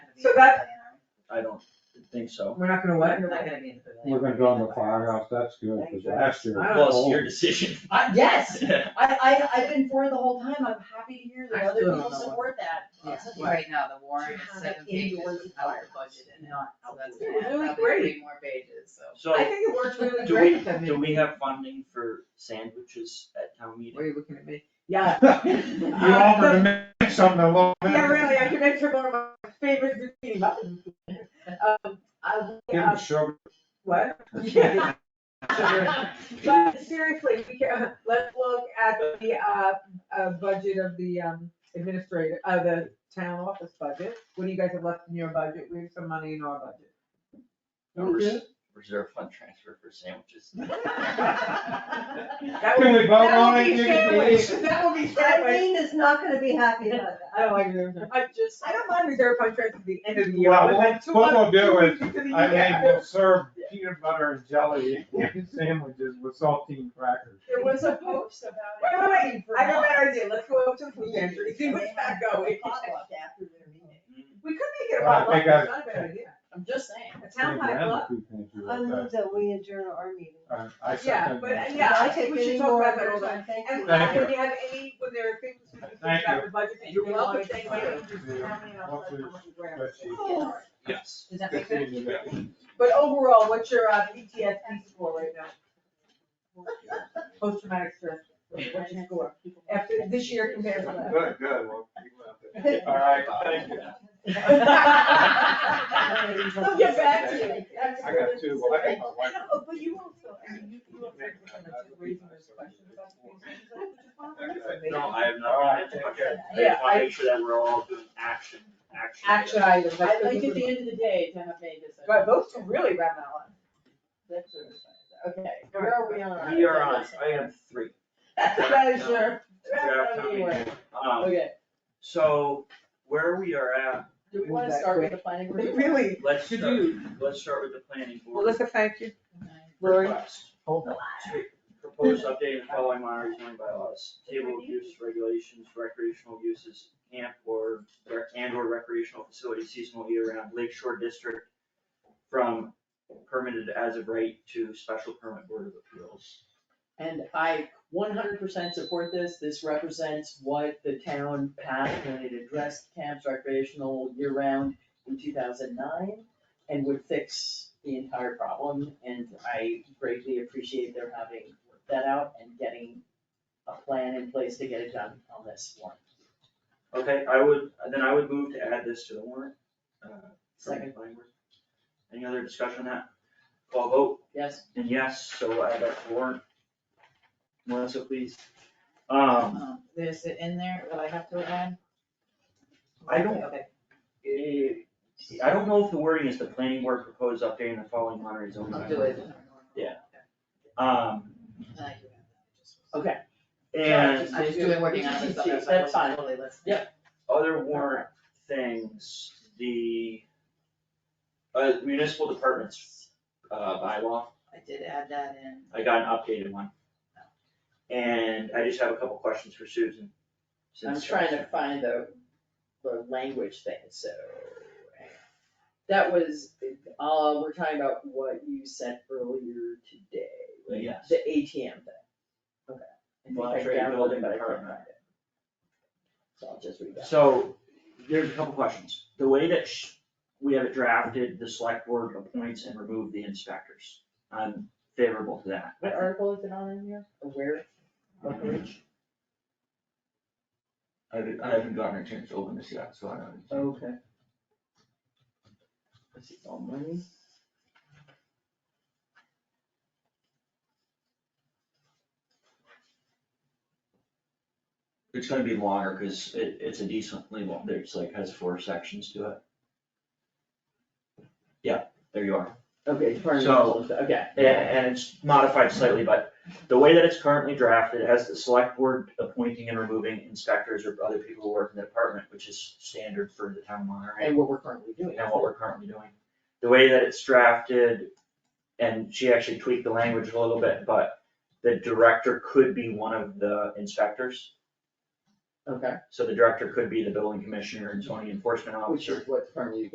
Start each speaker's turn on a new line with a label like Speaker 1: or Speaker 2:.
Speaker 1: So that-
Speaker 2: I don't think so.
Speaker 3: We're not gonna what?
Speaker 1: You're not gonna be in the pavilion.
Speaker 4: We're gonna go in the firehouse, that's good, cause last year.
Speaker 3: I don't
Speaker 2: Well, it's your decision.
Speaker 1: I- yes, I, I, I've been for it the whole time, I'm happy to hear
Speaker 3: I
Speaker 1: that other
Speaker 3: still don't
Speaker 1: people
Speaker 3: know what-
Speaker 1: support that.
Speaker 3: Yeah.
Speaker 1: It's like,
Speaker 5: Right now, the warrant
Speaker 1: To
Speaker 5: is
Speaker 1: have
Speaker 5: seven
Speaker 1: it
Speaker 5: pages
Speaker 1: indoors
Speaker 5: without
Speaker 1: with
Speaker 5: the
Speaker 1: fireworks,
Speaker 5: budget in it, so that's
Speaker 3: Yeah,
Speaker 5: gonna
Speaker 1: Oh,
Speaker 5: add
Speaker 3: really
Speaker 5: probably
Speaker 3: great.
Speaker 5: three more pages, so.
Speaker 2: So,
Speaker 3: I think it works really
Speaker 2: do
Speaker 3: great.
Speaker 2: we,
Speaker 3: I mean,
Speaker 2: do we have funding for sandwiches at town
Speaker 3: Why are
Speaker 2: meeting?
Speaker 3: you looking at me? Yeah,
Speaker 4: You offered to make something a little bit.
Speaker 3: yeah, really, I can enter one of my favorite zucchini muffins. Um, I,
Speaker 4: Give
Speaker 3: uh,
Speaker 4: them sugar.
Speaker 3: what? Yeah. But seriously, we can, uh, let's look at the, uh, uh, budget of the, um, administrator, uh, the town office budget. What do you guys have left in your budget? We have some money in our budget.
Speaker 2: Res- Reserve fund transfer for sandwiches.
Speaker 3: That
Speaker 4: Can
Speaker 3: will-
Speaker 4: we vote
Speaker 3: that will
Speaker 4: on it?
Speaker 3: be
Speaker 4: You can
Speaker 3: sandwich.
Speaker 4: please-
Speaker 3: That will be sandwich.
Speaker 1: Kathleen is not gonna be happy about
Speaker 3: I
Speaker 1: that.
Speaker 3: don't like reserve. fund. I just, I don't mind reserve fund transfer at the end of the year.
Speaker 4: Well,
Speaker 3: but like two
Speaker 4: what we'll
Speaker 3: months-
Speaker 4: do
Speaker 3: two
Speaker 4: is,
Speaker 3: weeks into the
Speaker 4: I mean,
Speaker 3: year.
Speaker 4: we'll serve peanut butter and jelly sandwiches with saltine crackers.
Speaker 3: There was a post
Speaker 1: about
Speaker 3: Wait, wait, wait, I got a better idea, let's go up to the food pantry, see what's not going.
Speaker 1: After their meeting.
Speaker 4: Mm-hmm.
Speaker 3: We could make it a
Speaker 4: Well, I
Speaker 3: potluck,
Speaker 4: think I-
Speaker 3: it's not a bad idea,
Speaker 5: I'm just saying.
Speaker 3: a town potluck,
Speaker 1: I move that we adjourn our meeting.
Speaker 4: Uh, I
Speaker 3: Um, yeah,
Speaker 4: second
Speaker 3: but,
Speaker 4: that.
Speaker 3: yeah, I
Speaker 1: Can
Speaker 3: think we
Speaker 1: take
Speaker 3: should
Speaker 1: any
Speaker 3: talk
Speaker 1: more
Speaker 3: about that
Speaker 1: of
Speaker 3: all
Speaker 1: those?
Speaker 3: the time.
Speaker 1: Thank
Speaker 3: And
Speaker 1: you.
Speaker 4: Thank
Speaker 3: when you have any, when there are things we can
Speaker 4: Thank
Speaker 3: think about
Speaker 4: you.
Speaker 3: the budget that
Speaker 4: You're
Speaker 3: you want,
Speaker 1: welcome.
Speaker 3: thank you. How many of us have come up with grants?
Speaker 4: But she-
Speaker 3: Oh.
Speaker 2: Yes.
Speaker 3: Does that
Speaker 4: Good
Speaker 3: make
Speaker 4: seeing
Speaker 3: sense?
Speaker 4: you back.
Speaker 3: But overall, what's your uh, PTSD score right now? Post-traumatic stress, what's your score, after, this year compared to last?
Speaker 4: Good, good. Well, keep it up. All right, thank you.
Speaker 3: They'll get back to you. That's
Speaker 4: I got two, well, I got my
Speaker 3: I
Speaker 4: wife.
Speaker 3: know, but you also, I mean, you, you also kind of raising those questions about things, which is
Speaker 2: No,
Speaker 3: fine.
Speaker 2: I have
Speaker 4: All right,
Speaker 2: not.
Speaker 4: take
Speaker 2: Okay.
Speaker 4: care.
Speaker 2: I just wanna make sure that we're all doing action, action.
Speaker 3: Action items,
Speaker 5: I
Speaker 3: like,
Speaker 5: like at the end of the day to have made this.
Speaker 3: but those two really ran out.
Speaker 5: That's what I'm saying. Okay,
Speaker 3: Where are we on?
Speaker 2: We are on, I have three.
Speaker 3: Treasure,
Speaker 2: Draft
Speaker 3: treasure
Speaker 2: town
Speaker 3: anyway.
Speaker 2: meeting. Um,
Speaker 5: okay,
Speaker 2: so where we are at,
Speaker 5: do we wanna start with the planning board?
Speaker 3: Really,
Speaker 2: let's
Speaker 3: Should
Speaker 2: start, let's start with the planning board.
Speaker 3: Melissa, thank you. Lori?
Speaker 2: request.
Speaker 4: Hold on.
Speaker 2: Proposed update and following Monterey zoning bylaws, table of use regulations, recreational uses, camp or, or- and or recreational facility seasonal year-round Lake Shore District from permitted as of right to special permit board of appeals.
Speaker 5: And I one hundred percent support this, this represents what the town passed when it addressed camps recreational year-round in two thousand nine, and would fix the entire problem, and I greatly appreciate their having worked that out and getting a plan in place to get it done on this warrant.
Speaker 2: Okay, I would, then I would move to add this to the warrant. uh, from
Speaker 5: Second.
Speaker 2: planning board. Any other discussion on that? Call vote,
Speaker 5: Yes?
Speaker 2: and yes, so add that to warrant. Melissa, please. Um,
Speaker 5: Is it in there, will I have to add?
Speaker 2: I don't Eh, I don't know if the wording is the planning board proposed updating the following Monterey zoning bylaws. Yeah. Um,
Speaker 5: Okay.
Speaker 2: and
Speaker 5: I was doing working on this other stuff, I
Speaker 3: That's
Speaker 5: wasn't
Speaker 3: fine.
Speaker 5: totally listening.
Speaker 2: other warrant things, the uh, municipal departments, uh, bylaw,
Speaker 6: I did add that in.
Speaker 2: I got an updated one. And I just have a couple questions for Susan.
Speaker 5: I'm
Speaker 2: since-
Speaker 5: trying to find the, the language thing, so. hang on. That was, uh, we're talking about what you sent earlier today, right?
Speaker 2: Yes.
Speaker 5: The ATM thing. Okay. I think I
Speaker 2: Monterey
Speaker 5: downloaded
Speaker 2: Building
Speaker 5: it, but I
Speaker 2: Department.
Speaker 5: couldn't find it. So I'll just read that.
Speaker 2: So, there's a couple questions. The way that sh- we have it drafted, the select board appoints and remove the inspectors. I'm favorable to that.
Speaker 5: What article is it on in here, or where? What page?
Speaker 2: I haven't, I haven't gotten a chance to open this yet, so I don't.
Speaker 5: Okay. This is all money.
Speaker 2: It's gonna be longer, cause it, it's a decently long, there's like, has four sections to it. Yeah, there you are.
Speaker 5: Okay, pardon
Speaker 2: So-
Speaker 5: me, okay.
Speaker 2: And, and it's modified slightly, but the way that it's currently drafted has the select board appointing and removing inspectors or other people who work in the department, which is standard for the town of Monterey.
Speaker 5: And what we're currently doing.
Speaker 2: and what we're currently doing. The way that it's drafted, and she actually tweaked the language a little bit, but the director could be one of the inspectors.
Speaker 5: Okay,
Speaker 2: So the director could be the building commissioner and zoning enforcement
Speaker 5: which
Speaker 2: officer.
Speaker 5: is what's currently